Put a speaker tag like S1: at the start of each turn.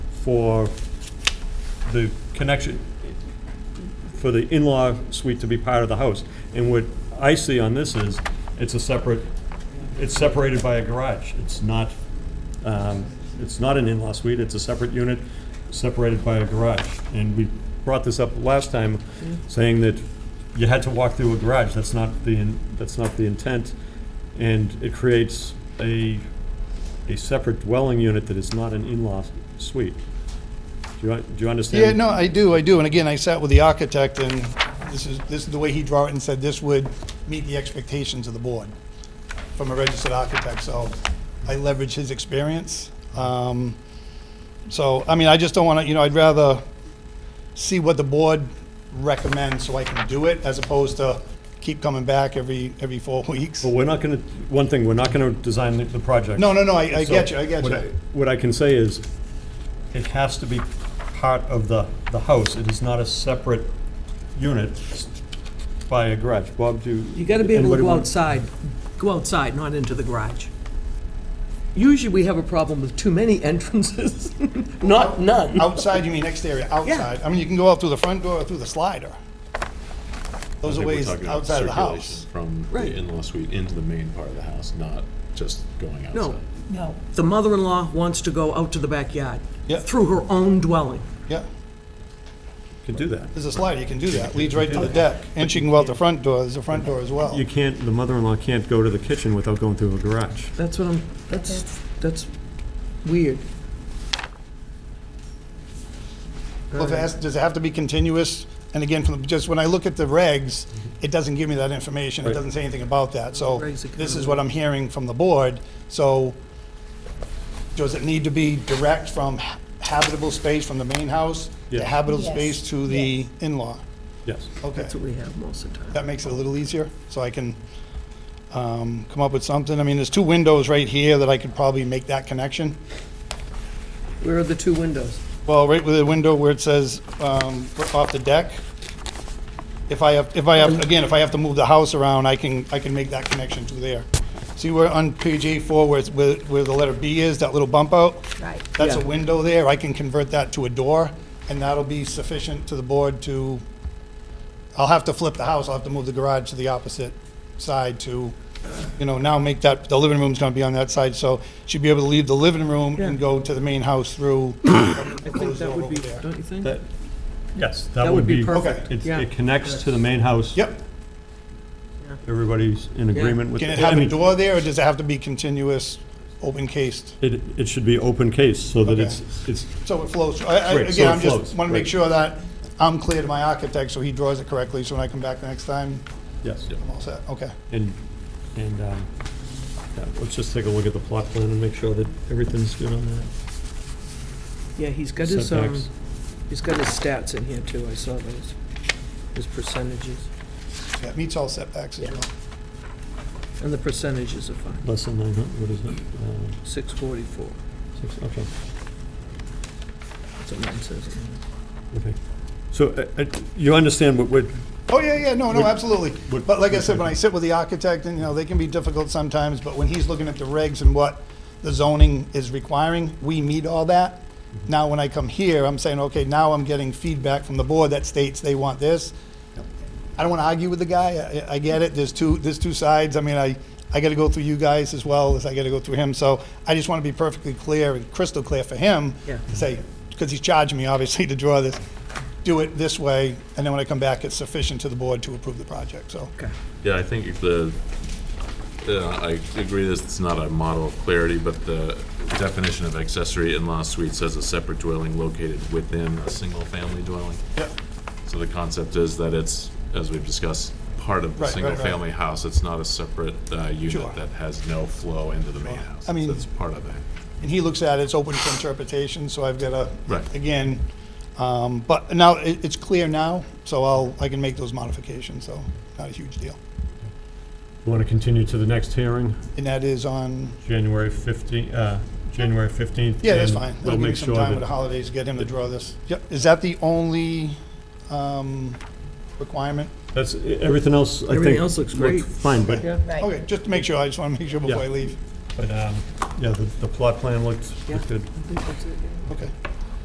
S1: for the connection, for the in-law suite to be part of the house. And what I see on this is, it's a separate, it's separated by a garage. It's not, um, it's not an in-law suite, it's a separate unit separated by a garage. And we brought this up last time, saying that you had to walk through a garage, that's not the, in- that's not the intent. And it creates a, a separate dwelling unit that is not an in-law suite. Do you, do you understand?
S2: Yeah, no, I do, I do. And again, I sat with the architect and this is, this is the way he drew it and said this would meet the expectations of the board from a registered architect, so I leverage his experience. Um, So, I mean, I just don't want to, you know, I'd rather see what the board recommends so I can do it as opposed to keep coming back every, every four weeks.
S1: But we're not gonna, one thing, we're not gonna design the- the project.
S2: No, no, no, I, I
S1: So
S2: get you, I get
S1: what
S2: you.
S1: What I can say is, it has to be part of the, the house. It is not a separate unit by a garage. Bob, do you?
S3: You gotta be able to
S1: anybody
S3: go
S1: want-
S3: outside, go outside, not into the garage. Usually, we have a problem with too many entrances, not none.
S2: Outside, you mean exterior, outside. I mean, you can go out through the front door or through the slider. Those are
S4: think we're
S2: ways
S4: talking about
S2: outside of the
S4: circulation
S2: house.
S4: From
S3: Right.
S4: the in-law suite into the main part of the house, not just going outside.
S3: No. No. The mother-in-law wants to go out to the backyard.
S2: Yeah.
S3: Through her own dwelling.
S2: Yeah,
S1: Can do that.
S2: there's a slider, you can do that, leads right to the deck. And she can go out the front door, there's a front door as well.
S1: You can't, the mother-in-law can't go to the kitchen without going through a garage.
S3: That's what I'm, that's, that's weird.
S2: Well, if it has- Does it have to be continuous? And again, from, the- just when I look at the regs, it doesn't give me that information, it
S1: Right.
S2: doesn't say anything about that. So
S3: Regs are kind
S2: this
S3: of-
S2: is what I'm hearing from the board. So does it need to be direct from ha- habitable space from the main house
S1: Yeah.
S2: to habitable
S5: Yes.
S2: space to the in-law?
S1: Yes.
S2: Okay.
S3: That's what we have most of the time.
S2: That makes it a little easier, so I can um, come up with something. I mean, there's two windows right here that I could probably make that connection.
S3: Where are the two windows?
S2: Well, right with the window where it says um, off the deck, if I have, if I have, again, if I have to move the house around, I can, I can make that connection to there. See where on page A4 where it's, where where the letter B is, that little bump out?
S5: Right.
S2: That's a
S3: Yeah.
S2: window there, I can convert that to a door, and that'll be sufficient to the board to, I'll have to flip the house, I'll have to move the garage to the opposite side to, you know, now make that, the living room's gonna be on that side, so she'd be able to leave the living room and
S3: Yeah.
S2: go to the main house through.
S3: I think that would be,
S2: Those are over there.
S3: don't you think?
S1: That, yes,
S3: That
S1: that would be.
S3: perfect.
S1: It,
S3: Yeah.
S1: it connects to the main house.
S2: Yep,
S1: Everybody's in agreement with.
S2: can it
S1: I
S2: have a
S1: mean,
S2: door there, or does it have to be continuous, open cased?
S1: It, it should be open case, so that
S2: Okay.
S1: it's, it's,
S2: So it flows, I, I,
S1: Right, so
S2: again,
S1: it
S2: I'm just,
S1: flows,
S2: wanna make
S1: right.
S2: sure that I'm clear to my architect, so he draws it correctly, so when I come back next time,
S1: yes.
S2: I'm all set, okay.
S1: And, and, um, yeah, let's just take a look at the plot plan and make sure that everything's good on that.
S3: Yeah, he's got his, um,
S1: Setbacks.
S3: he's got his stats in here too, I saw those, his percentages.
S2: Yeah, it meets all setbacks as
S3: Yeah.
S2: well.
S3: And the percentages are fine,
S1: Less than nine hundred, what is it?
S3: six forty-four,
S1: Uh, six- Okay,
S3: that's what mine says.
S1: okay. So, uh, uh, you understand what, what,
S2: Oh, yeah, yeah, no, no,
S1: Would-
S2: absolutely.
S1: would-
S2: But like I said, when I sit with the architect, and, you know, they can be difficult sometimes, but when he's looking at the regs and what the zoning is requiring, we meet all that. Now, when I come here, I'm saying, okay, now I'm getting feedback from the board that states they want this. I don't want to argue with the guy, I, I get it, there's two, there's two sides, I mean, I, I got to go through you guys as well as I got to go through him, so I just want to be perfectly clear and crystal clear for him.
S3: Yeah.
S2: to Say, because he's charging me, obviously, to draw this, do it this way, and then when I come back, it's sufficient to the board to approve the project, so.
S3: Okay.
S4: Yeah, I think the, uh, I agree this, it's not a model of clarity, but the definition of accessory in-law suite says a separate dwelling located within a single-family dwelling.
S2: Yep,
S4: So the concept is that it's, as we've discussed, part of the
S2: Right, right,
S4: single-family house. It's not a separate uh,
S2: Sure.
S4: unit that has no flow into the main house.
S2: I mean-
S4: It's part of it.
S2: and he looks at it, it's open to interpretation, so I've got
S4: Right.
S2: to, again, um, but now, it, it's clear now, so I'll, I can make those modifications, so not a huge deal.
S1: you wanna continue to the next hearing,
S2: And that is on
S1: January fifteenth, uh, January fifteenth?
S2: Yeah, that's fine.
S1: We'll
S2: That'll give me
S1: make
S2: some
S1: sure
S2: time with the
S1: that,
S2: holidays, to get him to draw this. Yep, is that the only um, requirement?
S1: that's, everything else, I think.
S3: Everything else looks
S1: looked
S3: great.
S1: Fine, but,
S3: Yeah.
S5: Right.
S2: Okay, just to make sure, I just want to make sure before I
S1: Yeah.
S2: leave.
S1: but, um, yeah, the, the plot plan looked,
S3: Yeah.
S1: looked good.
S3: I think that's it, yeah.
S2: Okay,